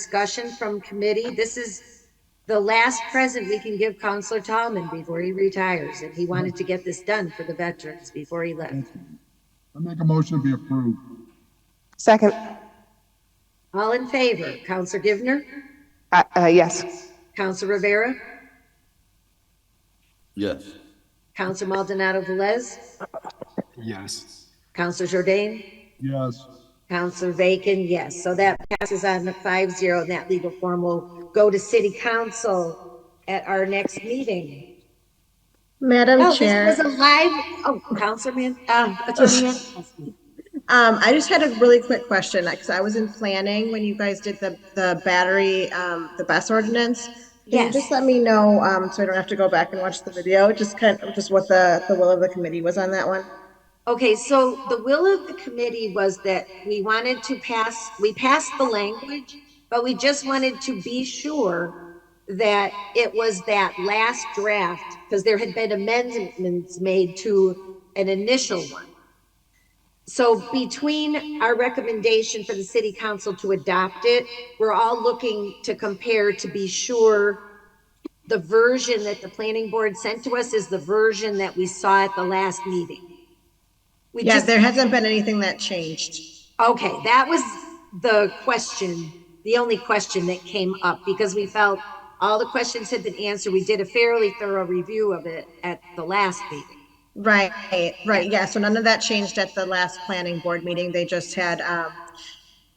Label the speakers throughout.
Speaker 1: discussion from committee. This is the last present we can give Counselor Tallman before he retires, and he wanted to get this done for the veterans before he left.
Speaker 2: I make a motion to be approved.
Speaker 3: Second,
Speaker 1: All in favor, Counselor Givner,
Speaker 3: uh, uh, yes.
Speaker 1: Counselor Rivera,
Speaker 4: Yes.
Speaker 1: Counselor Maldonado Velez,
Speaker 5: Yes.
Speaker 1: Counselor Jordan,
Speaker 2: Yes,
Speaker 1: Counselor Bacon, yes. So that passes on the five zero, and that legal form will go to city council at our next meeting.
Speaker 6: Madam
Speaker 1: No, Oh, this was
Speaker 6: Chair,
Speaker 1: a live, oh, Councilman, uh, Attorney Ann.
Speaker 7: Um, I just had a really quick question, because I was in planning when you guys did the, the battery, um, the bus ordinance. Can you
Speaker 1: Yes.
Speaker 7: just let me know, um, so I don't have to go back and watch the video, just kind of, just what the, the will of the committee was on that one?
Speaker 1: Okay, so the will of the committee was that we wanted to pass, we passed the language, but we just wanted to be sure that it was that last draft, because there had been amendments made to an initial one. So between our recommendation for the city council to adopt it, we're all looking to compare to be sure the version that the planning board sent to us is the version that we saw at the last meeting. We
Speaker 7: Yeah,
Speaker 1: just,
Speaker 7: there hasn't been anything that changed.
Speaker 1: okay, that was the question, the only question that came up because we felt all the questions had been answered. We did a fairly thorough review of it at the last meeting.
Speaker 7: Right, right, yeah, so none of that changed at the last planning board meeting, they just had, um,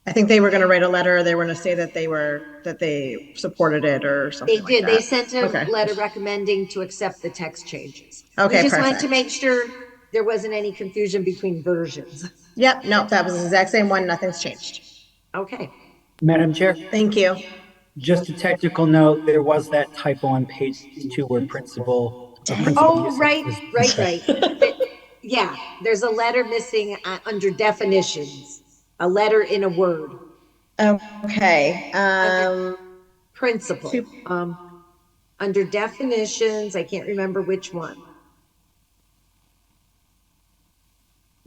Speaker 7: I think they were gonna write a letter, they were gonna say that they were, that they supported it or something
Speaker 1: They
Speaker 7: like
Speaker 1: did, they
Speaker 7: that.
Speaker 1: sent a
Speaker 7: Okay.
Speaker 1: letter recommending to accept the text changes.
Speaker 7: Okay,
Speaker 1: We just wanted to
Speaker 7: perfect.
Speaker 1: make sure there wasn't any confusion between versions.
Speaker 7: Yep, no, that was the exact same one, nothing's changed.
Speaker 1: Okay,
Speaker 8: Madam Chair,
Speaker 7: Thank you.
Speaker 8: just a technical note, there was that typo on page two where principal. uh, principal
Speaker 1: oh,
Speaker 8: uses
Speaker 1: right,
Speaker 8: is-
Speaker 1: right, right. But, Yeah, there's a letter missing uh, under definitions, a letter in a word,
Speaker 7: Okay, um,
Speaker 1: principle. Um, under definitions, I can't remember which one.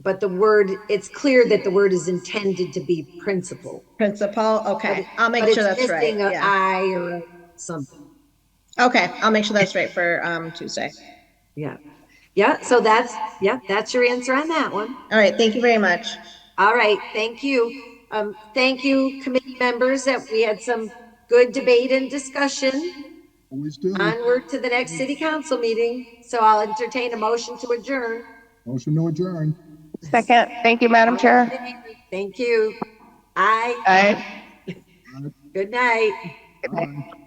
Speaker 1: But the word, it's clear that the word is intended to be principle.
Speaker 7: principal, okay, I'll
Speaker 1: But
Speaker 7: make
Speaker 1: it's
Speaker 7: sure that's right,
Speaker 1: missing a
Speaker 7: yeah.
Speaker 1: I or a something.
Speaker 7: Okay, I'll make sure that's right for, um, Tuesday.
Speaker 1: Yeah. Yeah. So that's, yeah, that's your answer on that one.
Speaker 7: All right, thank you very much.
Speaker 1: All right. Thank you. Um, thank you, committee members, that we had some good debate and discussion.
Speaker 2: always do.
Speaker 1: Onward to the next city council meeting. So I'll entertain a motion to adjourn.
Speaker 2: Motion to adjourn.
Speaker 3: Second, thank you, Madam Chair.
Speaker 1: Thank you. Aye.
Speaker 3: Aye.
Speaker 1: Good night.
Speaker 2: Aye.